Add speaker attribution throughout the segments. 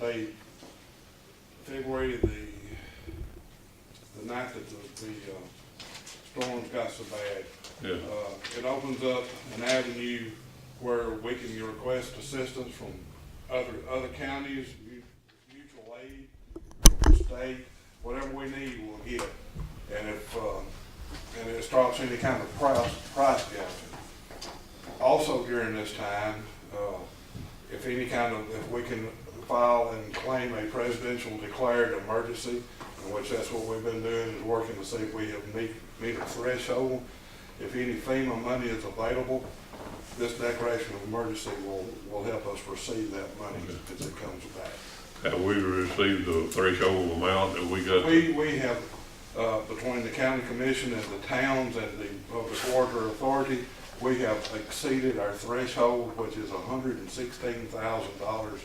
Speaker 1: by February the, the night that the, the uh, storms got so bad,
Speaker 2: Yeah,
Speaker 1: uh, it opens up an avenue where we can request assistance from other, other counties, mu- mutual aid, state, whatever we need, we'll get. it. And if, uh, and it starts any kind of price, price gouging. Also during this time, uh, if any kind of, if we can file and claim a presidential declared emergency, in which that's what we've been doing, is working to see if we have meet, meet a threshold. If any FEMA money is available, this declaration of emergency will, will help us receive that money as it comes back.
Speaker 2: have we received the threshold amount that we got?
Speaker 1: We, we have, uh, between the county commission and the towns and the public water authority, we have exceeded our threshold, which is hundred and sixteen thousand dollars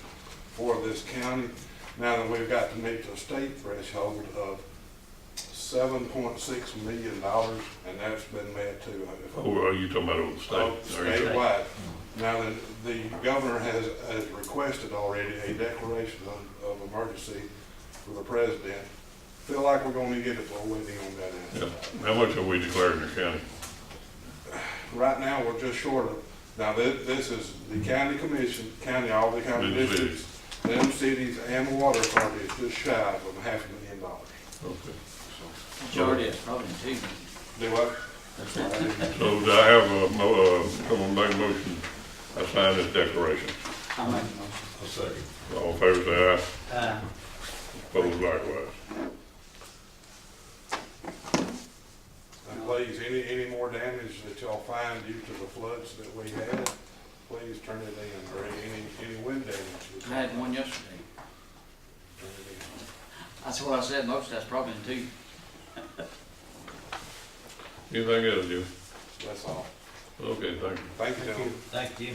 Speaker 1: for this county. Now that we've got to meet the state threshold of seven point six million dollars, and that's been met too. if I'm
Speaker 2: Oh, are you talking about over the
Speaker 1: Oh,
Speaker 2: state? There you go.
Speaker 1: Statewide. Now, the, the governor has, has requested already a declaration of, of emergency for the president. Feel like we're gonna get it, but we're waiting on that
Speaker 2: Yeah.
Speaker 1: answer.
Speaker 2: How much have we declared in the county?
Speaker 1: Right now, we're just short of, now, this, this is the county commission, county, all the county
Speaker 2: And the cities.
Speaker 1: districts, them cities and the water authority is just shy of a half a million dollars.
Speaker 2: Okay.
Speaker 1: So,
Speaker 3: Majority is probably two.
Speaker 1: Do what? Sorry, I didn't-
Speaker 2: So do I have a, mo- uh, come on, make a motion, I sign this declaration.
Speaker 3: I make a motion.
Speaker 4: I'll second.
Speaker 2: All in favor, say aye.
Speaker 3: Uh,
Speaker 2: Opposed likewise.
Speaker 1: And please, any, any more damage that y'all find due to the floods that we had, please turn it in, or any, any wind damage. that-
Speaker 3: I had one yesterday.
Speaker 1: Turn it
Speaker 3: That's what I said, most, that's probably two.
Speaker 2: Anything else, Jim?
Speaker 1: in. That's all.
Speaker 2: Okay, thank you.
Speaker 1: Thank you, gentlemen.
Speaker 4: Thank you.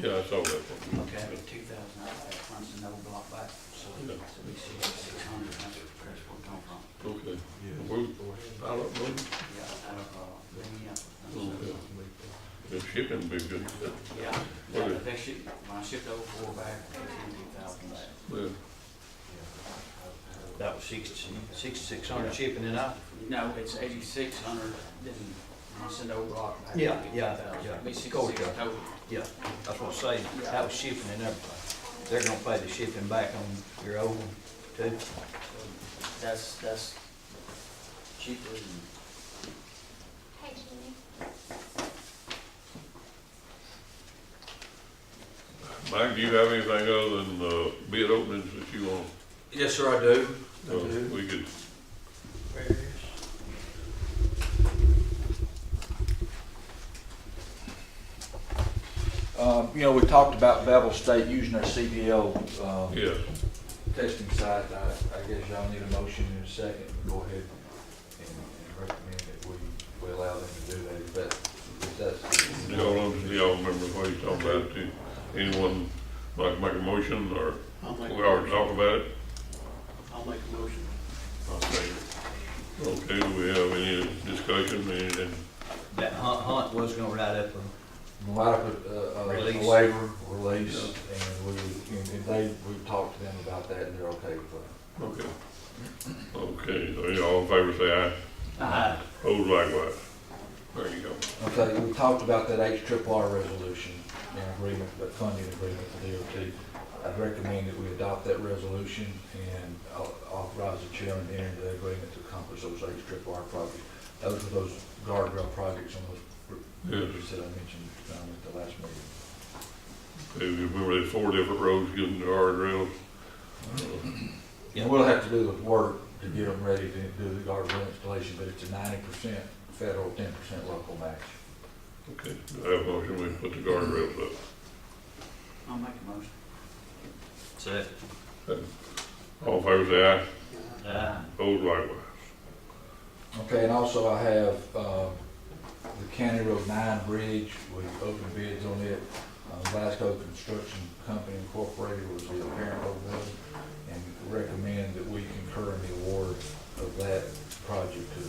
Speaker 2: Yeah, I saw that one.
Speaker 3: Okay, two thousand, I had one's a no block back, so
Speaker 2: Yeah.
Speaker 3: we see six hundred, that's where it come from.
Speaker 2: Okay. We- I don't know.
Speaker 3: Yeah, out of, uh, Minneapolis.
Speaker 2: The shipping be good.
Speaker 3: Yeah,
Speaker 2: Okay.
Speaker 3: yeah, they shipped, when I shipped over four back, it was two thousand back.
Speaker 2: Yeah.
Speaker 4: That was six, sixty-six hundred shipping and out.
Speaker 3: No, it's eighty-six hundred, then when I sent over block back.
Speaker 4: Yeah, yeah,
Speaker 3: 2,000.
Speaker 4: yeah.
Speaker 3: Be
Speaker 4: Go
Speaker 3: sixty-six
Speaker 4: with that.
Speaker 3: total.
Speaker 4: Yeah, that's what I'm saying, that was shipping and everything. They're gonna pay the shipping back on your old one too.
Speaker 3: That's, that's cheaper than.
Speaker 5: Hi, Jeannie.
Speaker 2: Mike, do you have anything other than, uh, bid openings that you want?
Speaker 6: Yes, sir, I do. I
Speaker 2: uh,
Speaker 6: do.
Speaker 2: We could
Speaker 7: Um, You know, we talked about Bevel State using our CBL um,
Speaker 2: Yes,
Speaker 7: testing site. I I guess y'all need a motion in a second. Go ahead and and recommend that we we allow them to do that. If that- if that's.
Speaker 2: y'all, under- y'all remember what you talking about too. Anyone like to make a motion or
Speaker 8: I'll make,
Speaker 2: we already talked about it?
Speaker 8: I'll make a motion.
Speaker 2: Okay, do we have any discussion, anything?
Speaker 4: That Hunt, Hunt was gonna write up a,
Speaker 7: Might have a
Speaker 4: Release.
Speaker 7: waiver, release, and we, and if they, we talked to them about that and they're okay with that.
Speaker 2: Okay. Okay, so you all in favor say aye.
Speaker 3: Aye.
Speaker 2: Opposed likewise. There you go.
Speaker 7: Okay, we talked about that H triple R resolution and agreement, but funding agreement for DOT. I'd recommend that we adopt that resolution and au- authorize the chairman to enter into the agreement to accomplish those H triple R projects. Those are those guardrail projects on those
Speaker 2: Yes.
Speaker 7: bridges that I mentioned um, at the last meeting.
Speaker 2: Okay, you remember there's four different roads getting to our drills? Uh-huh.
Speaker 4: Yeah.
Speaker 7: And we'll have to do the work to get them ready to do the guardrail installation, but it's a ninety percent federal, ten percent local match.
Speaker 2: Okay, do I have a motion, we put the guardrails up.
Speaker 3: I'll make a motion.
Speaker 4: so,
Speaker 2: All in favor say aye.
Speaker 4: uh,
Speaker 2: Opposed likewise.
Speaker 7: Okay, and also I have, uh, the County Road Nine Bridge, we opened bids on it. Uh, Glasgow Construction Company Incorporated was the apparent bidder, and recommend that we concur in the award of that project to the